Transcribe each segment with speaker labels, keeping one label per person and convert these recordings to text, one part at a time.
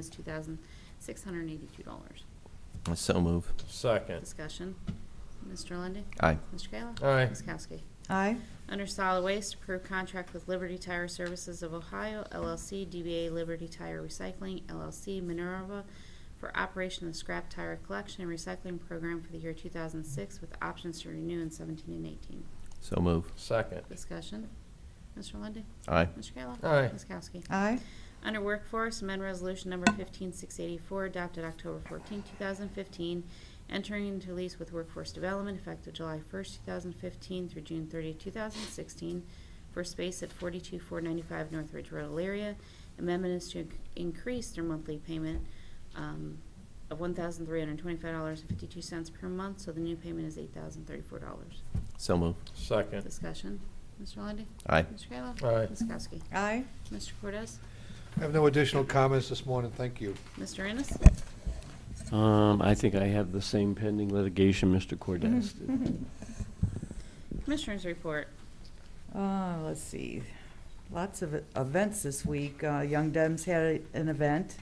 Speaker 1: is two thousand six hundred and eighty-two dollars.
Speaker 2: I so move.
Speaker 3: Second.
Speaker 1: Discussion. Mr. Lundy.
Speaker 2: Aye.
Speaker 1: Mr. Kayla?
Speaker 3: Aye.
Speaker 1: Ms. Kowski?
Speaker 4: Aye.
Speaker 1: Under solid waste, approve contract with Liberty Tire Services of Ohio LLC, DBA Liberty Tire Recycling LLC, Minerva, for operation of scrap tire collection and recycling program for the year 2006 with options to renew in 17 and 18.
Speaker 2: So move.
Speaker 3: Second.
Speaker 1: Discussion. Mr. Lundy.
Speaker 2: Aye.
Speaker 1: Mr. Kayla?
Speaker 3: Aye.
Speaker 1: Ms. Kowski?
Speaker 4: Aye.
Speaker 1: Under Workforce, amend Resolution Number 15684, adopted October 14, 2015, entering into lease with Workforce Development effective July 1, 2015 through June 30, 2016, for space at 42495 Northridge Road, Elyria. Amendment is to inc- increase their monthly payment um, of $1,325.52 per month, so the new payment is $8,034.
Speaker 2: So move.
Speaker 3: Second.
Speaker 1: Discussion. Mr. Lundey?
Speaker 2: Aye.
Speaker 1: Mr. Kayla?
Speaker 3: Aye.
Speaker 1: Ms. Kowski?
Speaker 4: Aye.
Speaker 1: Mr. Cortez?
Speaker 5: I have no additional comments this morning, thank you.
Speaker 1: Mr. Ennis?
Speaker 6: Um, I think I have the same pending litigation Mr. Cordez did.
Speaker 1: Commissioners report.
Speaker 4: Uh, let's see, lots of e-, events this week. Uh, Young Dems had an event,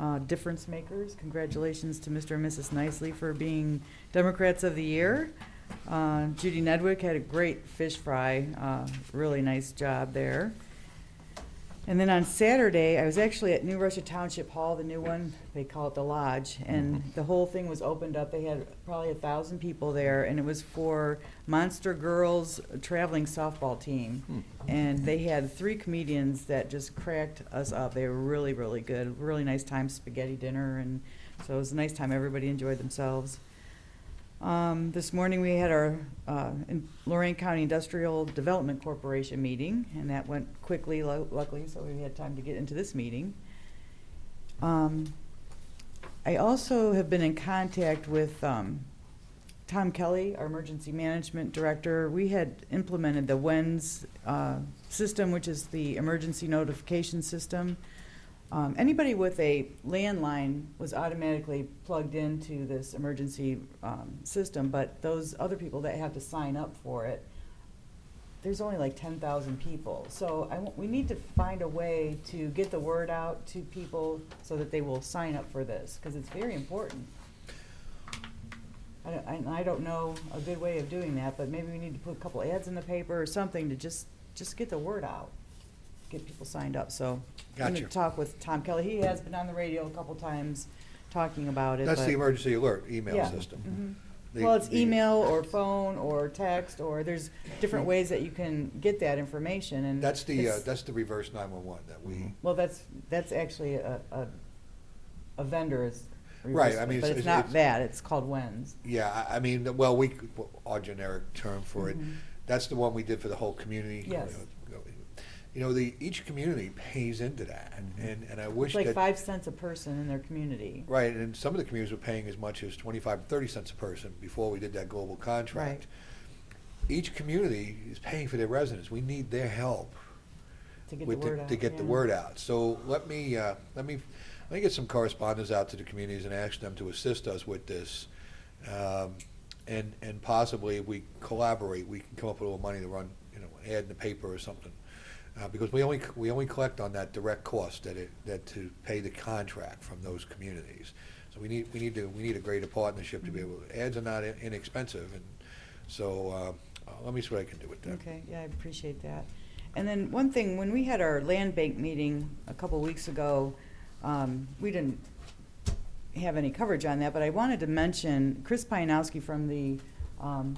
Speaker 4: uh, Difference Makers. Congratulations to Mr. and Mrs. Nicely for being Democrats of the Year. Uh, Judy Nedwick had a great fish fry, uh, really nice job there. And then on Saturday, I was actually at New Russia Township Hall, the new one, they call it the Lodge, and the whole thing was opened up. They had probably a thousand people there, and it was for Monster Girls Traveling Softball Team. And they had three comedians that just cracked us up. They were really, really good. Really nice time, spaghetti dinner, and so it was a nice time. Everybody enjoyed themselves. Um, This morning, we had our uh, in- Lorraine County Industrial Development Corporation meeting, and that went quickly, lo- luckily, so we had time to get into this meeting. Um, I also have been in contact with um, Tom Kelly, our Emergency Management Director. We had implemented the WENS uh, system, which is the Emergency Notification System. Um, anybody with a landline was automatically plugged into this emergency um, system, but those other people that have to sign up for it, there's only like 10,000 people. So I want- we need to find a way to get the word out to people so that they will sign up for this because it's very important. I don't, and I don't know a good way of doing that, but maybe we need to put a couple ads in the paper or something to just just get the word out, get people signed up. So I'm
Speaker 5: Gotcha.
Speaker 4: gonna talk with Tom Kelly. He has been on the radio a couple times talking about it.
Speaker 5: That's the
Speaker 4: but-
Speaker 5: emergency alert email
Speaker 4: Yeah.
Speaker 5: system.
Speaker 4: Mhm.
Speaker 5: The-
Speaker 4: Well, it's
Speaker 5: the-
Speaker 4: email or phone or text or there's different ways that you can get that information and.
Speaker 5: That's the, uh,
Speaker 4: it's-
Speaker 5: that's the reverse 911 that we,
Speaker 4: Well, that's, that's actually a, a, a vendor's.
Speaker 5: Right, I
Speaker 4: reverse,
Speaker 5: mean,
Speaker 4: But
Speaker 5: it's-
Speaker 4: it's
Speaker 5: it's-
Speaker 4: not
Speaker 5: it's-
Speaker 4: that, it's called WENS.
Speaker 5: yeah, I, I mean, well, we, our generic term for it,
Speaker 4: Mhm.
Speaker 5: that's the one we did for the whole community.
Speaker 4: Yes.
Speaker 5: You know, the, each community pays into that, and, and I wish
Speaker 4: It's
Speaker 5: that.
Speaker 4: like five cents a person in their community.
Speaker 5: Right, and some of the communities were paying as much as 25, 30 cents a person before we did that global contract. Each community is paying for their residents. We need their help.
Speaker 4: To get the
Speaker 5: with the-
Speaker 4: word out.
Speaker 5: To get the
Speaker 4: yeah.
Speaker 5: word out. So let me, uh, let me, let me get some correspondence out to the communities and ask them to assist us with this. Um, And, and possibly if we collaborate, we can come up with a little money to run, you know, an ad in the paper or something. Uh, Because we only, we only collect on that direct cost that it, that to pay the contract from those communities. So we need, we need to, we need a greater partnership to be
Speaker 4: Mm-hmm.
Speaker 5: able, ads are not inexpensive, and so uh, let me see what I can do with that. uh,
Speaker 4: Okay, yeah, I appreciate that. And then one thing, when we had our land bank meeting a couple weeks ago, um, we didn't have any coverage on that, but I wanted to mention Chris Pianowski from the um,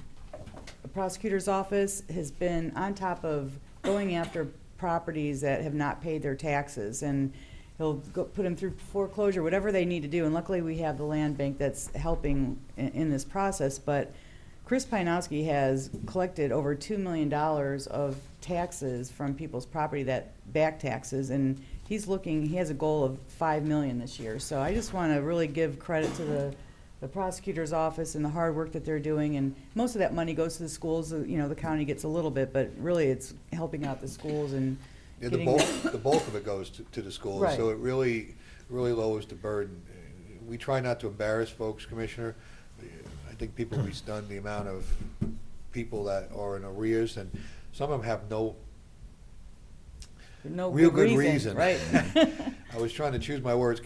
Speaker 4: prosecutor's office has been on top of going after properties that have not paid their taxes, and he'll go, put them through foreclosure, whatever they need to do, and luckily we have the land bank that's helping in, in this process, but Chris Pianowski has collected over two million dollars of taxes from people's property that back taxes, and he's looking. He has a goal of five million this year. So I just want to really give credit to the the prosecutor's office and the hard work that they're doing. And most of that money goes to the schools. uh, You know, the county gets a little bit, but really it's helping out the schools and
Speaker 5: Yeah, the
Speaker 4: getting
Speaker 5: bulk,
Speaker 4: that-
Speaker 5: the bulk of it goes to, to the schools, so
Speaker 4: Right.
Speaker 5: it really, really lowers the burden. We try not to embarrass folks, Commissioner. I think people will be stunned the amount of people that are in arrears, and some of them have no,
Speaker 4: no
Speaker 5: real good reason.
Speaker 4: right?
Speaker 5: I was trying to choose my words